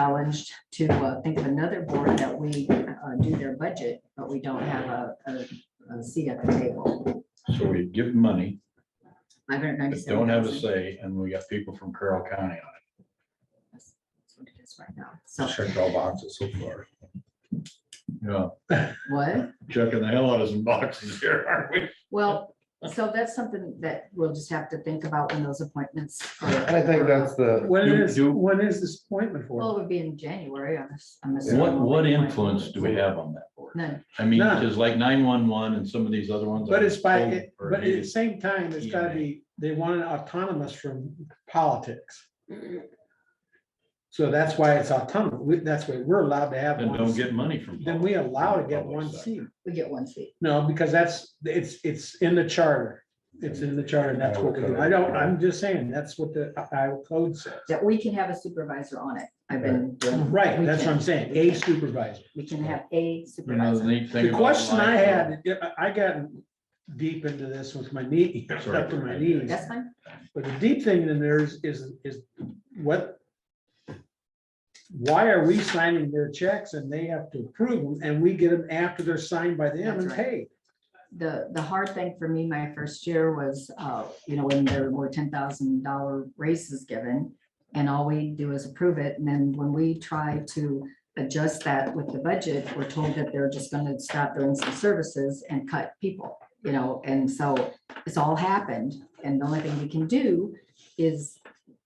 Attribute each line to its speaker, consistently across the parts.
Speaker 1: challenged to uh, think of another board that we uh, do their budget, but we don't have a, a- a seat at the table.
Speaker 2: So we give money,
Speaker 1: Five hundred
Speaker 2: but
Speaker 1: ninety-seven.
Speaker 2: don't have a say, and we got people from Carroll County
Speaker 1: That's what it is right now.
Speaker 2: on
Speaker 1: So,
Speaker 2: it. Checked all boxes so far. Yeah,
Speaker 1: what?
Speaker 2: checking the hell out of some boxes here, aren't we?
Speaker 1: Well, so that's something that we'll just have to think about when those appointments. are-
Speaker 3: And I think that's the,
Speaker 4: When
Speaker 2: Do-
Speaker 4: is,
Speaker 2: do-
Speaker 4: when is this appointment
Speaker 1: Well,
Speaker 4: for?
Speaker 1: it would be in January, I'm ass- I'm assuming.
Speaker 2: What, what influence do we have on that board?
Speaker 1: None.
Speaker 2: I mean,
Speaker 4: None.
Speaker 2: just like nine-one-one and some of these other ones.
Speaker 4: But it's by,
Speaker 2: I'm
Speaker 4: it-
Speaker 2: told are
Speaker 4: but at the
Speaker 2: hated.
Speaker 4: same time, it's gotta be, they want it autonomous from politics. So that's why it's autonomous. We- That's why we're allowed to have
Speaker 2: And
Speaker 4: one.
Speaker 2: don't
Speaker 4: seat.
Speaker 2: get money from.
Speaker 4: Then we allow to get
Speaker 2: public
Speaker 4: one
Speaker 2: sector.
Speaker 4: seat.
Speaker 1: We get one seat.
Speaker 4: No, because that's, it's, it's in the charter. It's in the charter. and That's what we do. I don't, I'm just saying, that's what the Iowa code says.
Speaker 1: That we can have a supervisor on it. I've been. doing-
Speaker 4: Right,
Speaker 1: we
Speaker 4: that's what
Speaker 1: can-
Speaker 4: I'm saying. A supervisor.
Speaker 1: We can have a
Speaker 2: You know, the
Speaker 1: supervisor.
Speaker 2: neat thing.
Speaker 4: The
Speaker 2: about
Speaker 4: question I
Speaker 2: life-
Speaker 4: had, I I got deep into this with my knee,
Speaker 2: Sorry.
Speaker 4: up to my knees.
Speaker 1: That's fine.
Speaker 4: But the deep thing in there is, is, is what? Why are we signing their checks and they have to approve them and we get them after they're signed by them and
Speaker 1: That's right.
Speaker 4: paid?
Speaker 1: the, the hard thing for me my first year was, uh, you know, when there were ten thousand dollar raises given. And all we do is approve it. And then when we try to adjust that with the budget, we're told that they're just gonna stop doing some services and cut people. You know, and so it's all happened. And the only thing we can do is,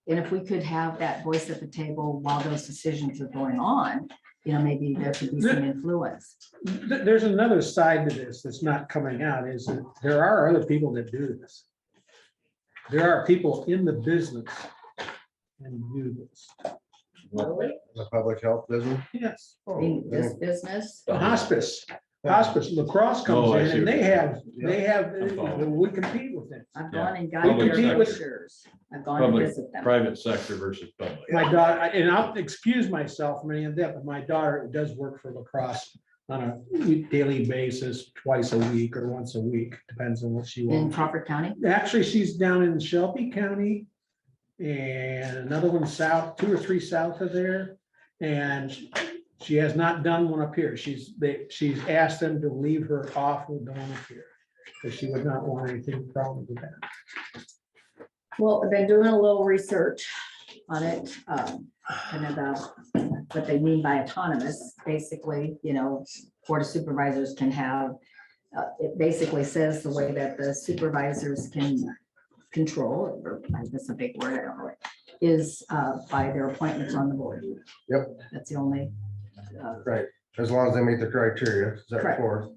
Speaker 1: and if we could have that voice at the table while those decisions are going on, you know, maybe there could be some influence.
Speaker 4: Th- there's another side to this that's not coming out is that there are other people that do this. There are people in the business and do this.
Speaker 3: the public health Oh, business.
Speaker 4: Yes.
Speaker 1: I mean, this business.
Speaker 4: The hospice, hospice, lacrosse comes
Speaker 2: Oh, I
Speaker 4: in
Speaker 2: see
Speaker 4: and
Speaker 2: what
Speaker 4: they
Speaker 2: you're
Speaker 4: have, they have, uh,
Speaker 2: I'm following.
Speaker 4: we compete with them.
Speaker 1: I've
Speaker 2: Yeah.
Speaker 1: gone and gotten
Speaker 4: Public
Speaker 1: their
Speaker 4: sector.
Speaker 1: brochures. I've gone and
Speaker 2: Public-
Speaker 1: visit them.
Speaker 2: Private sector versus public.
Speaker 4: My daughter, and I'll excuse myself from any of that, but my daughter does work for lacrosse on a daily basis, twice a week or once a week, depends on what she
Speaker 1: In
Speaker 4: wants.
Speaker 1: Crawford County,
Speaker 4: Actually, she's down in Shelby County and another one south, two or three south of there. And she has not done one up here. She's, they, she's asked them to leave her off with the one up here. Because she would not want anything problem with that.
Speaker 1: well, I've been doing a little research on it, um, and about what they mean by autonomous. Basically, you know, board of supervisors can have, uh, it basically says the way that the supervisors can control, or that's a big word, I don't know, is, uh, by their appointments on the board.
Speaker 3: Yep.
Speaker 1: That's the only, uh,
Speaker 3: As long as they meet the criteria, is that
Speaker 1: Correct.
Speaker 3: four?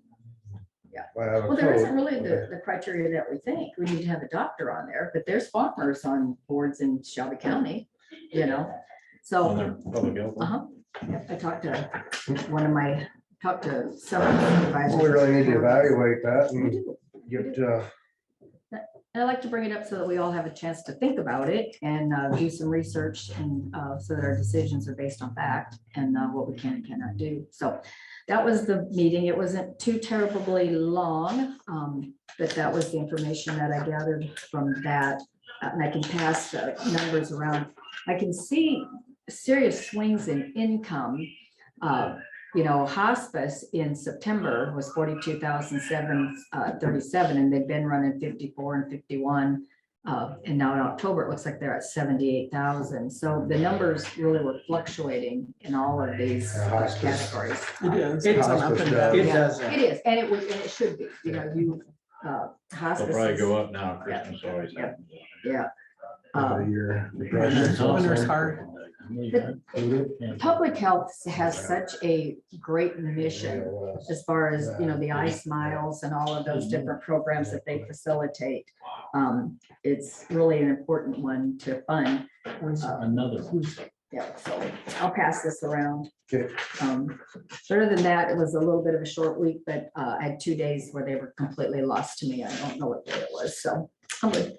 Speaker 1: Yeah.
Speaker 3: Well,
Speaker 1: Well, there isn't really the, the criteria that we think. We need to have a doctor on there, but there's farmers on boards in Shelby County, you know?
Speaker 2: On
Speaker 1: So,
Speaker 2: their public health.
Speaker 1: uh-huh, Yep, I talked to one of my, talked to several
Speaker 3: Well, We
Speaker 1: supervisors.
Speaker 3: really need to evaluate that
Speaker 1: We
Speaker 3: and
Speaker 1: do.
Speaker 3: get, uh,
Speaker 1: And I like to bring it up so that we all have a chance to think about it and uh, do some research and uh, so that our decisions are based on fact and uh, what we can and cannot do. So that was the meeting. It wasn't too terribly long, um, but that was the information that I gathered from that. Uh, And I can pass the numbers around. I can see serious swings in income. Uh, You know, hospice in September was forty-two thousand seven uh, thirty-seven, and they've been running fifty-four and fifty-one. uh, And now in October, it looks like they're at seventy-eight thousand. So the numbers really were fluctuating in all of these
Speaker 3: Yeah,
Speaker 1: uh,
Speaker 3: hospice.
Speaker 1: categories.
Speaker 4: It
Speaker 3: Hospice does.
Speaker 4: It does.
Speaker 1: It is, and it was, and it should be, you know, you, uh,
Speaker 2: They'll
Speaker 1: hospice.
Speaker 2: probably
Speaker 1: is-
Speaker 2: go up now,
Speaker 1: Yeah.
Speaker 2: Christmas always
Speaker 1: Yeah.
Speaker 2: happens.
Speaker 1: Yeah.
Speaker 3: over
Speaker 1: Uh,
Speaker 3: the year.
Speaker 5: Winter's hard.
Speaker 1: Public health has such a great mission as far as, you know, the ice miles and all of those different programs that they facilitate. Um, it's really an important one to fund. Uh,
Speaker 2: Another.
Speaker 1: Yeah, so I'll pass this around.
Speaker 3: Okay.
Speaker 1: Um, Other than that, it was a little bit of a short week, but uh, I had two days where they were completely lost to me. I don't know what day it was, so. I'm good.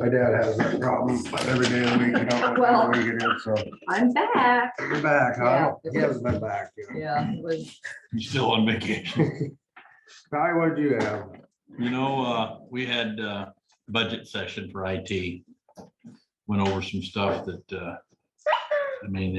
Speaker 3: My dad has that problem every day of the week. You don't know
Speaker 1: Well-
Speaker 3: when you're gonna get in, so
Speaker 1: I'm back.
Speaker 3: you're back, huh?
Speaker 1: Yeah.
Speaker 3: He hasn't been back. you know.
Speaker 1: Yeah, it was,
Speaker 5: You still on vacation?
Speaker 3: Ty, what'd you have?
Speaker 5: You know, uh, we had uh budget session for IT. Went over some stuff that uh,
Speaker 2: I mean,